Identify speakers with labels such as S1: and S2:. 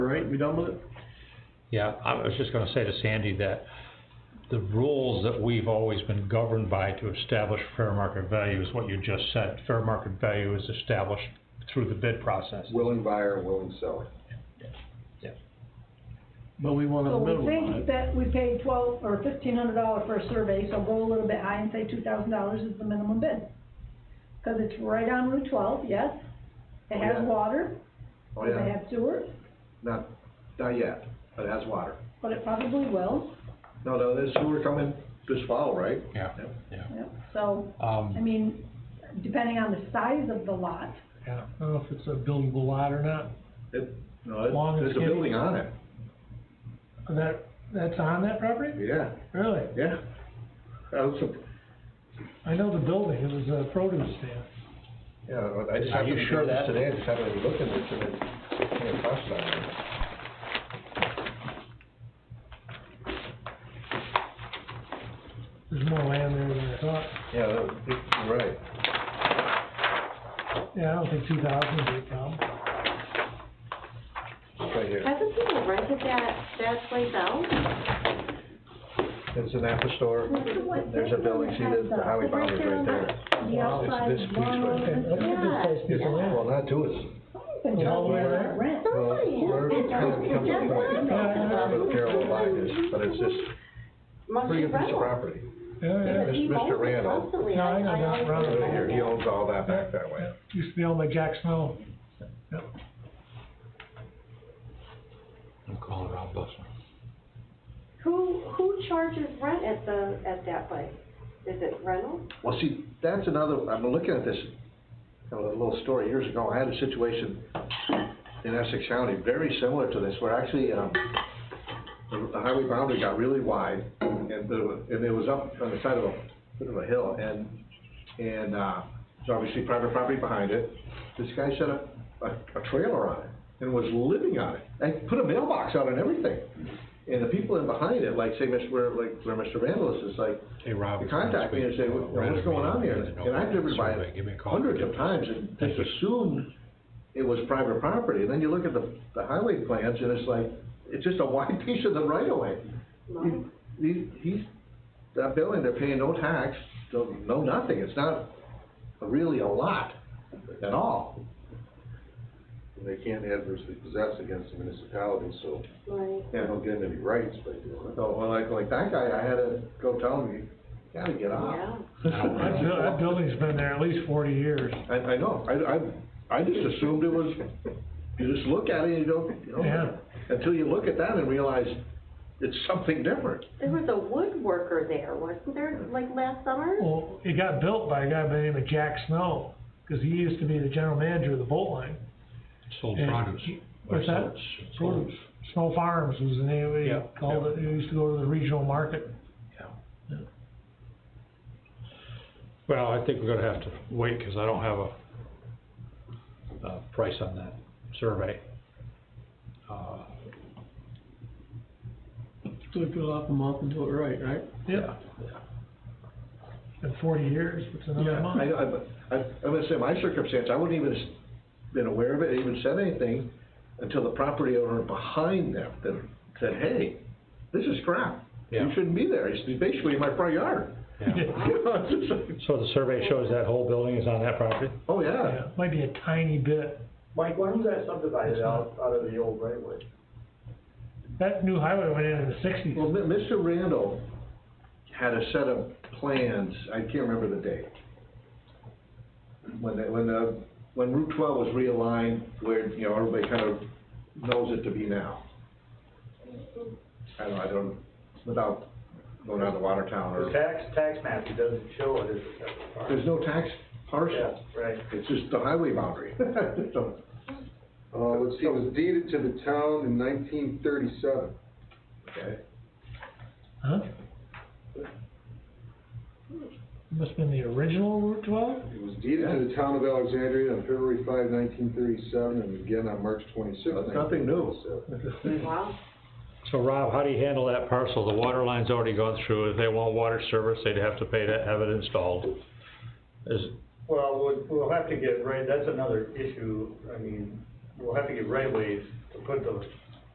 S1: right, we done with it?
S2: Yeah, I was just gonna say to Sandy that the rules that we've always been governed by to establish fair market value is what you just said. Fair market value is established through the bid process.
S3: willing buyer, willing seller.
S1: But we want a
S4: So
S1: middle
S4: we
S1: line.
S4: think that we paid twelve or fifteen hundred dollars for a survey, so go a little bit high and say two thousand dollars is the minimum bid. Cause it's right on Route twelve, yes, it
S3: Yeah.
S4: has water,
S3: Oh,
S4: does it
S3: yeah,
S4: have sewer,
S3: not, not yet, but it has water.
S4: but it probably will,
S3: No, no, there's sewer coming this fall, right?
S2: Yeah,
S3: Yep.
S2: yeah.
S4: yeah, so, I
S2: Um,
S4: mean, depending on the size of the lot,
S1: Yeah, I don't know if it's a buildable lot or not,
S3: It, no, it-
S1: Long and
S3: there's a
S1: skinny.
S3: building on it,
S1: And that, that's on that property?
S3: yeah,
S1: Really?
S3: yeah. That was a-
S1: I know the building, it was a produce stand.
S3: Yeah, I just
S2: Are
S3: happened
S2: you
S3: to
S2: sure
S3: do this
S2: that-
S3: today, I just happened to look at this and it came across that way.
S1: There's more land there than I thought.
S3: Yeah, that- it- you're right.
S1: Yeah, I don't think two thousand would be a problem.
S3: It's right here.
S5: Hasn't people rented that, that place out?
S3: It's an Apple store,
S4: Look at what-
S3: there's a building, see the, the highway boundary's right there.
S4: the outside
S3: this
S4: is
S3: piece right
S4: long.
S3: there. It's, well, not two, it's,
S4: Been
S1: It's all the way
S4: built
S1: around?
S4: rent.
S3: well, where it kind of becomes a point, where the parallel line is, but it's this
S5: Must
S3: pretty
S5: be
S3: good piece of
S5: rental.
S3: property.
S1: Yeah, yeah.
S5: Because he
S3: Mr.
S5: owns it
S3: Randall.
S5: constantly.
S1: No, I know
S5: I
S1: that
S5: always
S1: Randall.
S3: Right here,
S5: remember
S3: he
S5: that.
S3: owns all that back that way.
S1: Used to be owned by Jack Snow.
S2: I'm calling Rob Bussler.
S5: Who, who charges rent at the, at that place? Is it rental?
S3: Well, see, that's another, I'm looking at this, you know, a little story, years ago, I had a situation in Essex County, very similar to this, where actually, um, the the highway boundary got really wide, and there was, and it was up on the side of a, bit of a hill, and, and, uh, there's obviously private property behind it, this guy set up a, a trailer on it, and was living on it, and put a mailbox out and everything, and the people in behind it, like, say, Mr., where, like, where Mr. Randall is, it's like,
S2: Hey, Rob.
S3: they contact me and say, "What- what's going on here? And I've driven by
S2: Give me a
S3: it
S2: call.
S3: hundreds of times and just assumed it was private property. And then you look at the, the highway plans and it's like, it's just a wide piece of the right of way.
S5: No.
S3: These, he's, that building, they're paying no tax, no, no nothing. It's not really a lot at all.
S6: They can't adversely possess against the municipality, so
S5: Right.
S6: they don't get any rights by doing it.
S3: So, well, like, like that guy, I had to go tell him, you gotta get
S5: Yeah.
S3: off.
S1: That buil- that building's been there at least forty years.
S3: I, I know, I, I, I just assumed it was, you just look at it and you don't, you
S1: Yeah.
S3: know, until you look at that and realize it's something different.
S5: There was a woodworker there, wasn't there, like last summer?
S1: Well, it got built by a guy by the name of Jack Snow, cause he used to be the general manager of the boat line.
S2: Sold
S1: And
S2: produce.
S1: he-
S2: Or
S1: What's that?
S2: sold-
S1: Produce. Snow Farms was the name,
S2: Yeah,
S1: he called
S2: yeah.
S1: it, he used to go to the regional market.
S2: Well, I think we're gonna have to wait, cause I don't have a, a price on that survey. Uh,
S1: So we put off a month and do it right, right? Yeah. In forty years, it's another
S3: I,
S1: month.
S3: I, I, I'm gonna say my circumstance, I wouldn't even s- been aware of it, even said anything until the property owner behind them, that said, hey, this is crap. You
S2: Yeah.
S3: shouldn't be there. It's basically in my front yard.
S2: yeah.
S3: You know, it's just like,
S2: So the survey shows that whole building is on that property?
S3: Oh, yeah.
S1: Yeah, might be a tiny bit.
S7: Mike, why was that subdivided out, out of the old right of way?
S1: That new highway went in in the sixties.
S3: Well, Mi- Mr. Randall had a set of plans, I can't remember the date. When, the- when the, when Route twelve was realigned, where, you know, everybody kind of knows it to be now. I don't, I don't, without going out to Watertown
S7: The
S3: or,
S7: tax, tax map, it doesn't show it uh, as a separate parcel.
S3: there's no tax parcel,
S7: Yeah, right.
S3: it's just the highway boundary. So,
S6: Uh, let's see, it was deeded to the town in nineteen thirty-seven.
S3: okay.
S1: Huh? Must've been the original Route twelve?
S6: It was deeded to the town of Alexandria on February 5, 1937, and again on March 26,
S3: That's nothing new.
S6: 1937.
S1: Oh.
S5: Wow.
S2: So Rob, how do you handle that parcel? The water line's already gone through. If they want water service, they'd have to pay to have it installed. Is,
S7: Well, we'll, we'll have to get right, that's another issue, I mean, we'll have to get right ways to put the